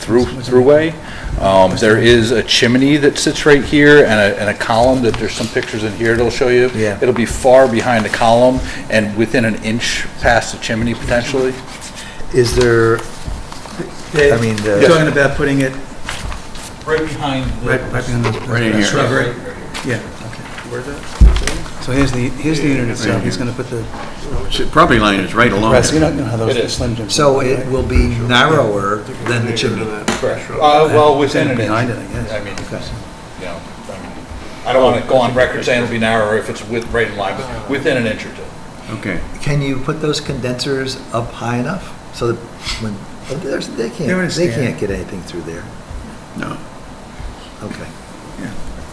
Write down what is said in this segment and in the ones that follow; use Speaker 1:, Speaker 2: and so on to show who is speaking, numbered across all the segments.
Speaker 1: through, throughway. Um, there is a chimney that sits right here and a, and a column that there's some pictures in here that'll show you.
Speaker 2: Yeah.
Speaker 1: It'll be far behind the column and within an inch past the chimney potentially.
Speaker 2: Is there,
Speaker 3: Dave,
Speaker 2: I mean, the-
Speaker 3: You're talking about putting it
Speaker 1: Right behind
Speaker 3: right, right behind the- the
Speaker 4: in here.
Speaker 3: shrubbery? Yeah, okay. Where's that? So here's the, here's the unit itself, he's gonna put the,
Speaker 4: So Property line is right along
Speaker 3: rest- you
Speaker 4: it.
Speaker 3: don't know how those the slim jims.
Speaker 2: so it will be narrower than the chimney?
Speaker 1: Uh, well, within an inch.
Speaker 3: Behind it, I guess.
Speaker 1: I mean, you know, I mean, I don't want to go on record saying it'll be narrower if it's with, right in line, but within an inch or two.
Speaker 4: Okay.
Speaker 2: Can you put those condensers up high enough so that when, oh, there's- they
Speaker 3: They would
Speaker 2: can't, they
Speaker 3: stand.
Speaker 2: can't get anything through there?
Speaker 4: No.
Speaker 2: Okay.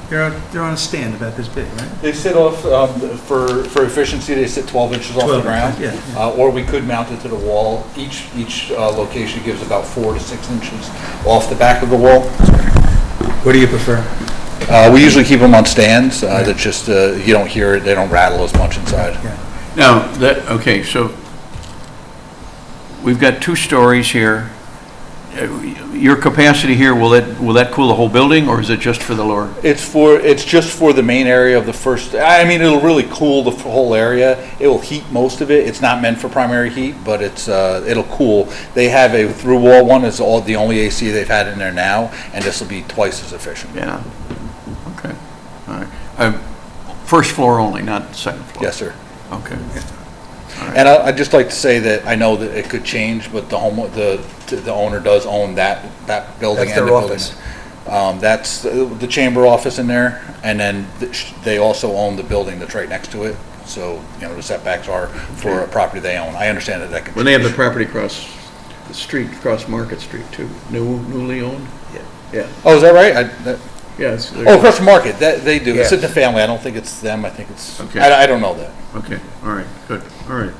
Speaker 3: They're, on- they're on a stand about this big, right?
Speaker 1: They sit off, um, for, for efficiency, they sit 12 inches off the
Speaker 3: 12,
Speaker 1: ground.
Speaker 3: yeah, yeah.
Speaker 1: Uh, Or we could mount it to the wall. Each, each uh, location gives about four to six inches off the back of the wall.
Speaker 3: What do you prefer?
Speaker 1: Uh, We usually keep them on stands, uh, that just, uh, you don't hear it, they don't rattle as much inside.
Speaker 3: Yeah,
Speaker 4: Now, that, okay, so we've got two stories here. Uh, Your capacity here, will it, will that cool the whole building, or is it just for the lower?
Speaker 1: It's for, it's just for the main area of the first, I mean, it'll really cool the f- whole area. It will heat most of it. It's not meant for primary heat, but it's, uh, it'll cool. They have a through wall one, it's all, the only AC they've had in there now, and this will be twice as efficient.
Speaker 4: Yeah, okay, all right. Uh, First floor only, not second floor?
Speaker 1: Yes, sir.
Speaker 4: Okay.
Speaker 1: And I, I'd just like to say that I know that it could change, but the home, the, the owner does own that, that building.
Speaker 2: That's
Speaker 1: and
Speaker 2: their
Speaker 1: the building.
Speaker 2: office.
Speaker 1: Um, that's uh, the chamber office in there, and then th- sh- they also own the building that's right next to it. So, you know, the setbacks are for a property they own. I understand that that can.
Speaker 4: Well, they have the property across the street, across Market Street, too, New newly owned?
Speaker 2: Yeah.
Speaker 4: Yeah,
Speaker 1: Oh, is that right? I, that,
Speaker 4: yes.
Speaker 1: oh, across the market, that, they do. It's
Speaker 2: Yeah.
Speaker 1: in the family. I don't think it's them. I think it's,
Speaker 4: Okay.
Speaker 1: I, I don't know that.
Speaker 4: Okay, all right, good, all right.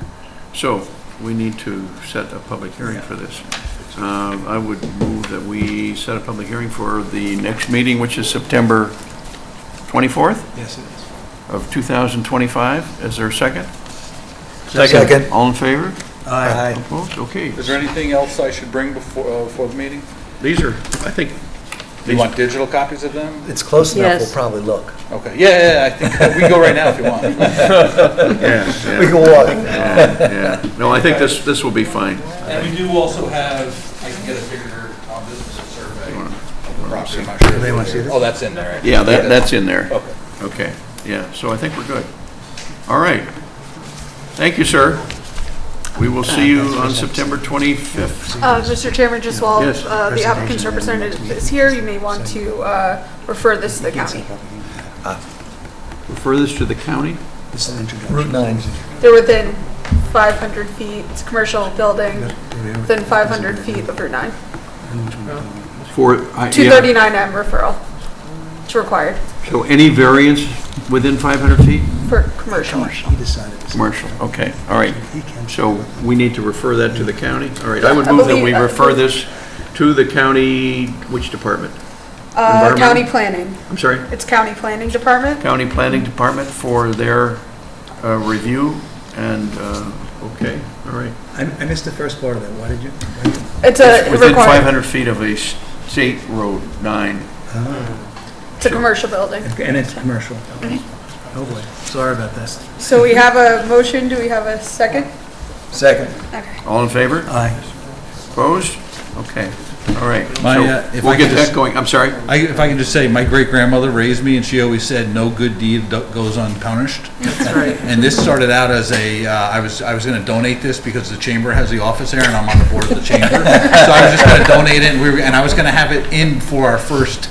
Speaker 4: So, we need to set a public hearing for this. Um, I would move that we set a public hearing for the next meeting, which is September 24th
Speaker 3: yes, it is.
Speaker 4: of 2025. Is there a second?
Speaker 2: Second.
Speaker 4: All in favor?
Speaker 2: Aye.
Speaker 4: Opposed? Okay.
Speaker 1: Is there anything else I should bring before, uh, for the meeting?
Speaker 4: These are, I think,
Speaker 1: Do you want digital copies of them?
Speaker 2: It's close enough, we'll
Speaker 5: Yes.
Speaker 2: probably look.
Speaker 1: Okay. Yeah, yeah, yeah, I think, uh, we can go right now if you want.
Speaker 4: yeah,
Speaker 2: We
Speaker 4: yeah,
Speaker 2: can walk.
Speaker 4: yeah, yeah. No, I think this, this will be fine.
Speaker 1: And we do also have, I can get a bigger, um, this is a survey of the property, I'm not sure.
Speaker 3: They wanna see this?
Speaker 1: Oh, that's in there. actually.
Speaker 4: Yeah, that, that's in there.
Speaker 1: Okay.
Speaker 4: Okay, yeah, so I think we're good. All right. Thank you, sir. We will see you on September 25th.
Speaker 5: Uh, Mr. Chairman, just while
Speaker 4: Yes.
Speaker 5: uh, the applicant's representative is here, you may want to uh, refer this to the county.
Speaker 4: Refer this to the county?
Speaker 3: This is an introduction.
Speaker 2: Route 9.
Speaker 5: They're within 500 feet, it's a commercial building, within 500 feet of Route 9.
Speaker 4: For, I- yeah.
Speaker 5: 239M referral, it's required
Speaker 4: So any variance within 500 feet?
Speaker 5: for commercial.
Speaker 3: He decided. this.
Speaker 4: Commercial, okay, all right.
Speaker 3: He can.
Speaker 4: So we need to refer that to the county? All right, I would
Speaker 5: I
Speaker 4: move that
Speaker 5: believe-
Speaker 4: we refer this to the county, which department?
Speaker 5: Uh, County
Speaker 4: Environmental?
Speaker 5: planning,
Speaker 4: I'm sorry?
Speaker 5: it's county planning department.
Speaker 4: County Planning Department for their uh, review, and, uh, okay, all right.
Speaker 3: I, I missed the first part of that, why did you? why did you-
Speaker 5: It's a
Speaker 4: Within
Speaker 5: required,
Speaker 4: 500 feet of a s- state road, nine.
Speaker 5: it's a commercial building.
Speaker 3: And it's commercial. Oh boy, sorry about this.
Speaker 5: So we have a motion, do we have a second?
Speaker 2: Second.
Speaker 5: Okay.
Speaker 4: All in
Speaker 1: Uh.
Speaker 4: favor?
Speaker 3: Aye.
Speaker 4: Opposed? Okay, all right.
Speaker 1: My,
Speaker 4: So
Speaker 1: uh, if I
Speaker 4: We'll
Speaker 1: could
Speaker 4: get
Speaker 1: just-
Speaker 4: that going, I'm sorry.
Speaker 1: I, if I can just say, my great-grandmother raised me, and she always said, "No good deed do- goes unpunished." That's right. And this started out as a, uh, I was, I was gonna donate this because the chamber has the office there, and I'm on the board of the chamber. So I was just gonna donate it, and we were, and I was gonna have it in for our first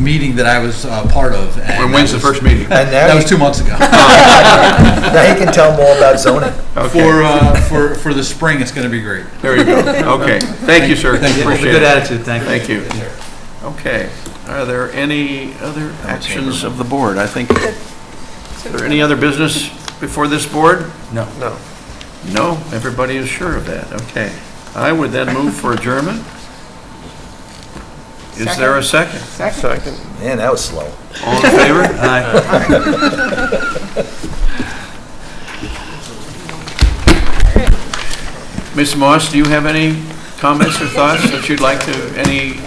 Speaker 1: meeting that I was, uh, part of.
Speaker 4: And when's the first
Speaker 1: meeting?
Speaker 4: meeting?
Speaker 2: And
Speaker 1: That
Speaker 2: now,
Speaker 1: was
Speaker 2: you-
Speaker 1: two months ago.
Speaker 2: now you can tell them all about zoning.
Speaker 4: Okay,
Speaker 1: For, uh, for, for the spring, it's gonna be great.
Speaker 4: there you go. Okay, thank you, sir.
Speaker 1: Thank you.
Speaker 4: Appreciate
Speaker 3: Good
Speaker 4: it.
Speaker 3: attitude, thank you.
Speaker 4: Thank you. Okay, are there any other actions of the board? I think, are there any other business before this board?
Speaker 3: No.
Speaker 4: No. No, everybody is sure of that, okay. I would then move for adjournment. Is there a second?
Speaker 2: Man, that was slow.
Speaker 4: All in favor?
Speaker 3: Aye.
Speaker 4: Ms. Moss, do you have any comments or thoughts that you'd like to, any